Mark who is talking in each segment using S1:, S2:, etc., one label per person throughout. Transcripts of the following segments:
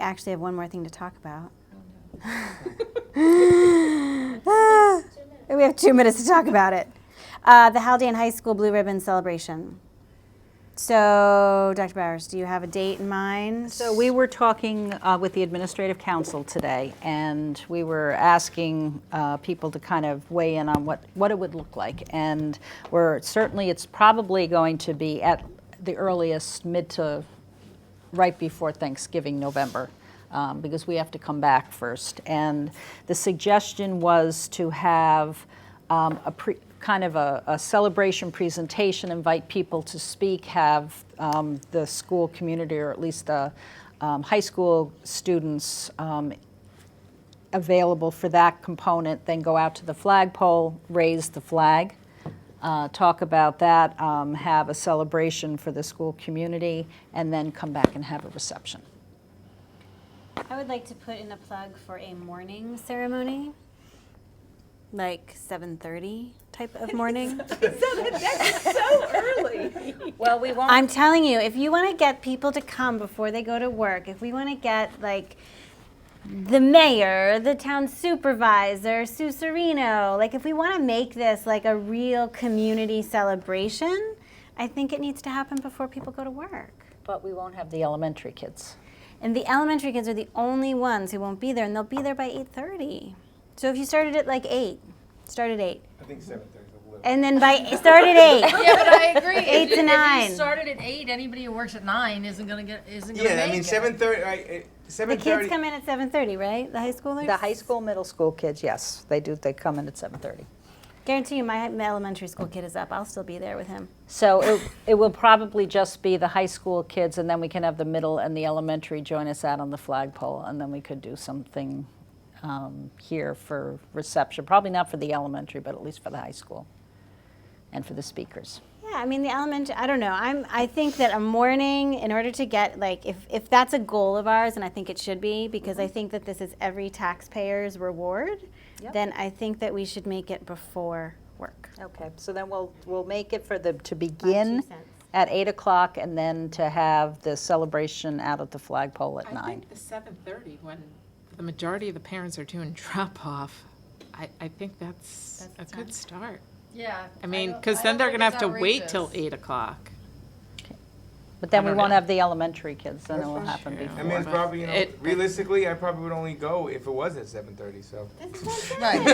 S1: actually have one more thing to talk about. Ah, we have two minutes to talk about it. Uh, the Haldane High School Blue Ribbon Celebration. So, Dr. Bowers, do you have a date in mind?
S2: So we were talking uh, with the administrative council today, and we were asking uh, people to kind of weigh in on what, what it would look like. And we're, certainly, it's probably going to be at the earliest, mid to, right before Thanksgiving, November, um, because we have to come back first. And the suggestion was to have um, a pre, kind of a, a celebration presentation, invite people to speak, have um, the school community, or at least the um, high school students, um, available for that component, then go out to the flagpole, raise the flag, uh, talk about that, um, have a celebration for the school community, and then come back and have a reception.
S1: I would like to put in a plug for a morning ceremony, like 7:30 type of morning.
S2: Well, we won't.
S1: I'm telling you, if you want to get people to come before they go to work, if we want to get like the mayor, the town supervisor, Sue Serino, like if we want to make this like a real community celebration, I think it needs to happen before people go to work.
S2: But we won't have the elementary kids.
S1: And the elementary kids are the only ones who won't be there, and they'll be there by 8:30. So if you started at like eight, start at eight,
S3: I think seven thirty is a little.
S1: and then by start at eight.
S4: Yeah, but I agree. If
S1: Eight to
S4: you- If
S1: nine.
S4: you started at eight, anybody who works at nine isn't gonna get, isn't gonna make it.
S3: Yeah, I mean, seven thirty, I,
S1: The
S3: seven
S1: kids
S3: thirty.
S1: come in at 7:30, right? The high schoolers.
S2: The high school, middle school kids, yes, they do, they come in at 7:30.
S1: Guarantee you, my my elementary school kid is up. I'll still be there with him.
S2: So it, it will probably just be the high school kids, and then we can have the middle and the elementary join us out on the flagpole, and then we could do something um, here for reception. Probably not for the elementary, but at least for the high school and for the speakers.
S1: Yeah, I mean the elementary. I don't know. I'm. I think that a morning, in order to get like, if if that's a goal of ours, and I think it should be, because I think that this is every taxpayer's reward,
S2: Yep.
S1: then I think that we should make it before work.
S2: Okay, so then we'll, we'll make it for the, to
S1: My two
S2: begin
S1: cents.
S2: at 8 o'clock, and then to have the celebration out at the flagpole at
S5: I
S2: 9.
S5: think the seven thirty, when the majority of the parents are doing drop off, I, I think that's a good start.
S4: Yeah.
S5: I mean,
S4: don't-
S5: because
S4: I don't
S5: then they're
S4: think
S5: gonna
S4: it's
S5: have to wait till
S4: outrageous.
S5: eight o'clock.
S2: But then
S5: I
S2: we
S5: don't
S2: won't
S5: know.
S2: have the elementary kids, then it will happen
S5: True.
S3: I
S2: before.
S3: mean, it's probably, you know,
S5: It-
S3: realistically, I probably would only go if it was at seven thirty, so.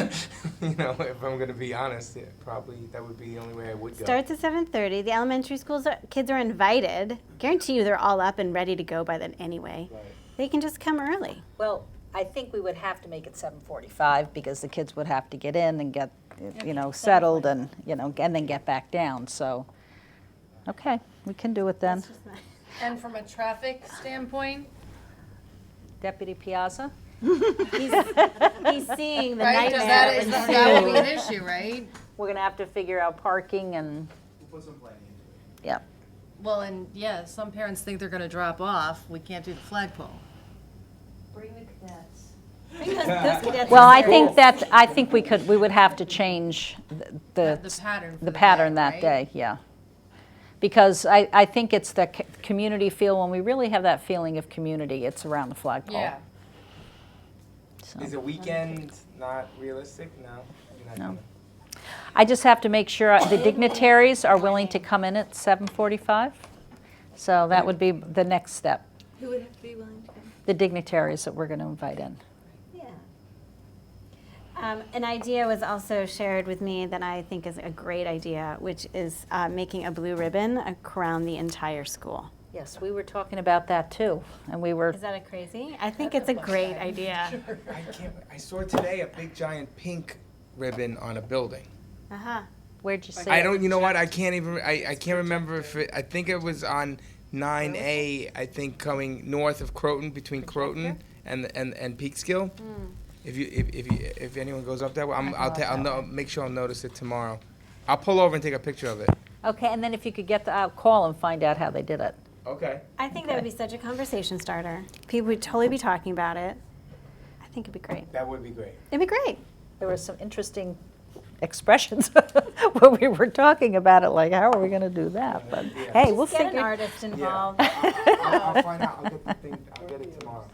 S3: You know, if I'm gonna be honest, it probably, that would be the only way I would go.
S1: Starts at 7:30. The elementary schools are, kids are invited. Guarantee you, they're all up and ready to go by then anyway.
S3: Right.
S1: They can just come early.
S2: Well, I think we would have to make it 7:45 because the kids would have to get in and get, you know, settled and, you know, and then get back down, so, okay, we can do it then.
S4: And from a traffic standpoint,
S2: Deputy Piazza?
S1: He's, he's seeing the
S4: right, does that,
S1: nightmare.
S4: is that would be an issue, right?
S2: We're gonna have to figure out parking and,
S3: We'll put some planning into
S2: yeah,
S4: Well, and yeah, some parents think they're gonna drop off, we can't do the flagpole.
S2: well, I think that, I think we could, we would have to change the-
S4: The pattern. for
S2: the
S4: day,
S2: pattern that
S4: right?
S2: day, yeah. Because I, I think it's the c- community feel, when we really have that feeling of community, it's around the flagpole.
S4: Yeah.
S2: so.
S3: it. Is a weekend not realistic? No? you're not
S2: No.
S3: gonna-
S2: I just have to make sure the dignitaries are willing to come in at 7:45. So that would be the next step. Who would have to be willing to come? The dignitaries that we're going to invite in.
S1: Um, an idea was also shared with me that I think is a great idea, which is uh, making a blue ribbon around the entire school.
S2: Yes, we were talking about that too, and we were,
S1: Is that a crazy? I think it's a great idea.
S3: I can't, I saw today a big giant pink ribbon on a building.
S1: Uh huh.
S2: where'd you see
S3: I
S2: it?
S3: don't, you know what, I can't even, I, I can't remember if it, I think it was on nine A, I think coming north of Croton, between Croton and, and, and Peekskill. If you, if, if you, if anyone goes up that way, I'm, I'll, ta- I'll no, make sure I'll notice it tomorrow. I'll pull over and take a picture of it.
S2: Okay, and then if you could get the, uh, call and find out how they did it.
S3: Okay.
S1: I think that would be such a conversation starter. People would totally be talking about it. I think it'd be great.
S3: That would be great.
S1: It'd be great.
S2: There were some interesting expressions when we were talking about it, like, how are we going to do that? But hey, we'll
S1: Get an
S2: figure.
S1: artist involved.
S3: I'll, I'll find out, I'll get the thing, I'll get it tomorrow.